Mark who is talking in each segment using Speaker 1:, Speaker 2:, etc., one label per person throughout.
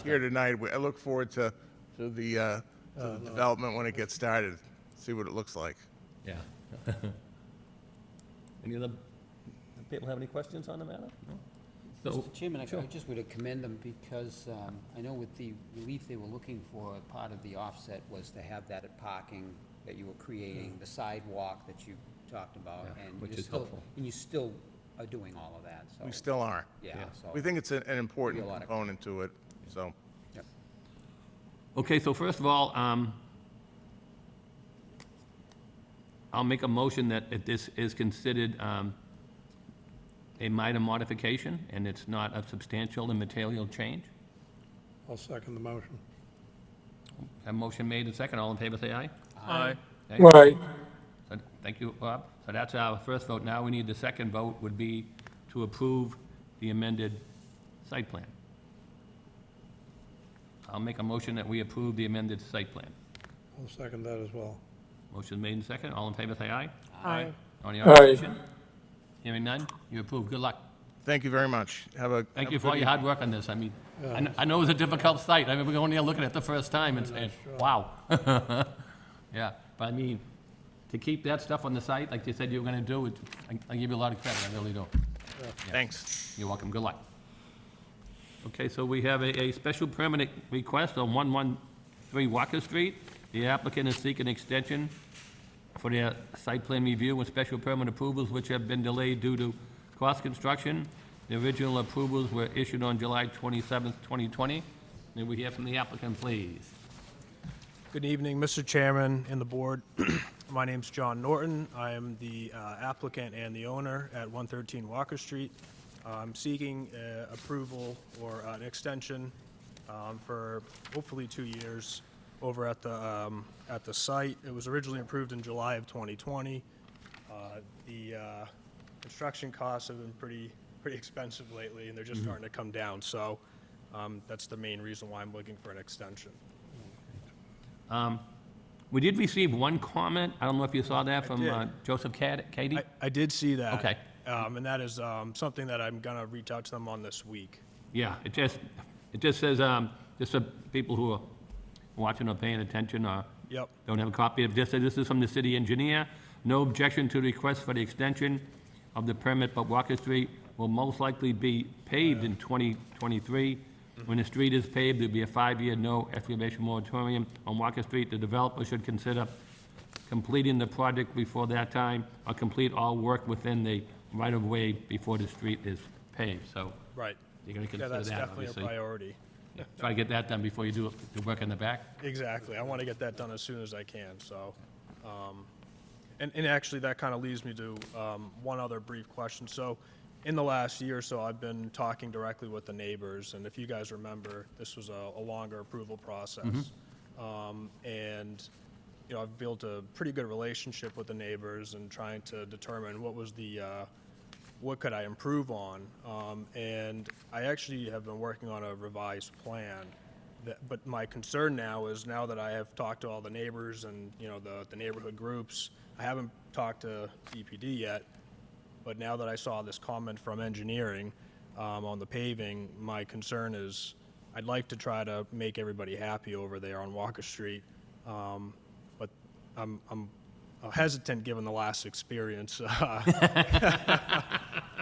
Speaker 1: here tonight. We- I look forward to, to the, uh, to the development when it gets started, see what it looks like.
Speaker 2: Yeah. Any other, people have any questions on the matter? No? So,
Speaker 3: Mr. Chairman, I I just would commend them because um, I know with the relief they were looking for, part of the offset was to have that at parking that you were creating, the sidewalk that you talked about,
Speaker 2: Yeah,
Speaker 3: and
Speaker 2: which
Speaker 3: you're
Speaker 2: is
Speaker 3: still,
Speaker 2: helpful.
Speaker 3: and you still are doing all of that, so.
Speaker 1: We still are.
Speaker 3: Yeah,
Speaker 2: Yeah.
Speaker 3: so.
Speaker 1: We think it's an, an important
Speaker 3: Be a lot of-
Speaker 1: component to it, so.
Speaker 3: Yep.
Speaker 2: okay, so first of all, um, I'll make a motion that it- this is considered, um, a minor modification, and it's not a substantial and material change.
Speaker 4: I'll second the motion.
Speaker 2: Have a motion made and second, all in favor, say aye.
Speaker 5: Aye.
Speaker 2: Okay?
Speaker 4: Right.
Speaker 2: So, Thank you, Bob. So that's our first vote. Now we need the second vote would be to approve the amended site plan. I'll make a motion that we approve the amended site plan.
Speaker 4: I'll second that as well.
Speaker 2: Motion made and second. All in favor, say aye.
Speaker 5: Aye.
Speaker 2: Any
Speaker 4: Aye.
Speaker 2: opposition? Hearing none, you approve. Good luck.
Speaker 1: Thank you very much. Have a. have
Speaker 2: Thank
Speaker 1: a
Speaker 2: you for all
Speaker 1: good
Speaker 2: your hard work on this. I mean, I kn- I know it was a difficult site. I remember going there looking at it the first time and saying, wow. Yeah, but I mean, to keep that stuff on the site, like you said you were going to do, it- I I give you a lot of credit, I really do.
Speaker 1: evening. Thanks.
Speaker 2: You're welcome, good luck. Okay, so we have a, a special permanent request on 113 Walker Street. The applicant is seeking extension for their site plan review and special permit approvals, which have been delayed due to cost construction. The original approvals were issued on July 27th, 2020. May we hear from the applicant, please?
Speaker 5: Good evening, Mr. Chairman and the board. My name's John Norton. I am the uh, applicant and the owner at 113 Walker Street. I'm seeking uh, approval or an extension um, for hopefully two years over at the, um, at the site. It was originally approved in July of 2020. Uh, The uh, construction costs have been pretty, pretty expensive lately, and they're just starting to come down. So um, that's the main reason why I'm looking for an extension.
Speaker 2: We did receive one comment, I don't know if you saw that, from
Speaker 5: did.
Speaker 2: uh, Joseph Cad- Cady?
Speaker 5: I, I did see that.
Speaker 2: Okay.
Speaker 5: Um, and that is, um, something that I'm gonna reach out to them on this week.
Speaker 2: Yeah, it just, it just says, um, just so people who are watching or paying attention or
Speaker 5: Yep.
Speaker 2: don't have a copy of this, this is from the city engineer. No objection to request for the extension of the permit, but Walker Street will most likely be paved in 2023. When the street is paved, there'll be a five-year no excavation moratorium on Walker Street. The developer should consider completing the project before that time or complete all work within the right-of-way before the street is paved, so
Speaker 5: Right.
Speaker 2: you're gonna
Speaker 5: Yeah,
Speaker 2: consider
Speaker 5: that's
Speaker 2: that,
Speaker 5: definitely a
Speaker 2: obviously.
Speaker 5: priority.
Speaker 2: Try to get that done before you do the work in the back.
Speaker 5: Exactly. I wanna get that done as soon as I can, so. um, And, and actually, that kinda leads me to, um, one other brief question. So, in the last year or so, I've been talking directly with the neighbors, and if you guys remember, this was a, a longer approval process.
Speaker 2: Mm-hmm.
Speaker 5: Um, and, you know, I've built a pretty good relationship with the neighbors and trying to determine what was the, uh, what could I improve on? Um, and I actually have been working on a revised plan. That, but my concern now is now that I have talked to all the neighbors and you know the, the neighborhood groups, I haven't talked to DPD yet. But now that I saw this comment from engineering um, on the paving, my concern is I'd like to try to make everybody happy over there on Walker Street. Um, but I'm, I'm hesitant given the last experience.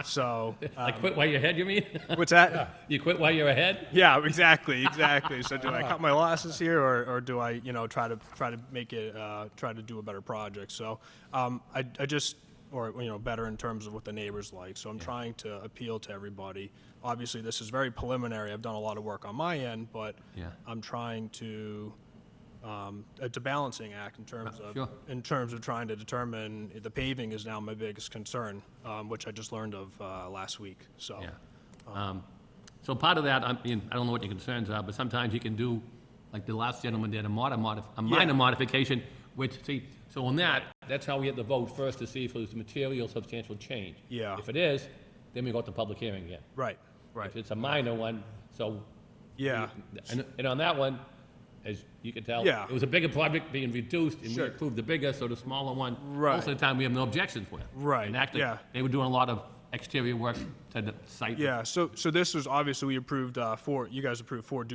Speaker 5: so, uh,
Speaker 2: Like quit while you're ahead, you mean?
Speaker 5: what's that?
Speaker 2: You quit while you're ahead?
Speaker 5: Yeah, exactly, exactly. So do I cut my losses here, or, or do I, you know, try to try to make it, uh, try to do a better project? So um, I, I just, or you know, better in terms of what the neighbors like. So I'm trying to appeal to everybody. Obviously, this is very preliminary. I've done a lot of work on my end, but
Speaker 2: Yeah.
Speaker 5: I'm trying to. Um, it's a balancing act in terms of
Speaker 2: Uh, sure.
Speaker 5: in terms of trying to determine the paving is now my biggest concern, um, which I just learned of uh, last week. So
Speaker 2: Yeah. Um, So part of that, I mean, I don't know what your concerns are, but sometimes you can do, like the last gentleman did, a minor modif, a minor modification, which, see, so on that, that's how we get the vote first to see if there's material substantial change.
Speaker 5: Yeah.
Speaker 2: If it is, then we go to public hearing again.
Speaker 5: right, right,
Speaker 2: If it's a minor one, so.
Speaker 5: yeah.
Speaker 2: And, and on that one, as you can tell.
Speaker 5: Yeah.
Speaker 2: It was a bigger project being reduced, and we
Speaker 5: Sure.
Speaker 2: approved the bigger, so the smaller one. Most
Speaker 5: Right.
Speaker 2: of the time, we have no objections with.
Speaker 5: Right,
Speaker 2: And actually,
Speaker 5: yeah.
Speaker 2: They were doing a lot of exterior work to the site.
Speaker 5: Yeah, so, so this was obviously, we approved, uh, four, you guys approved four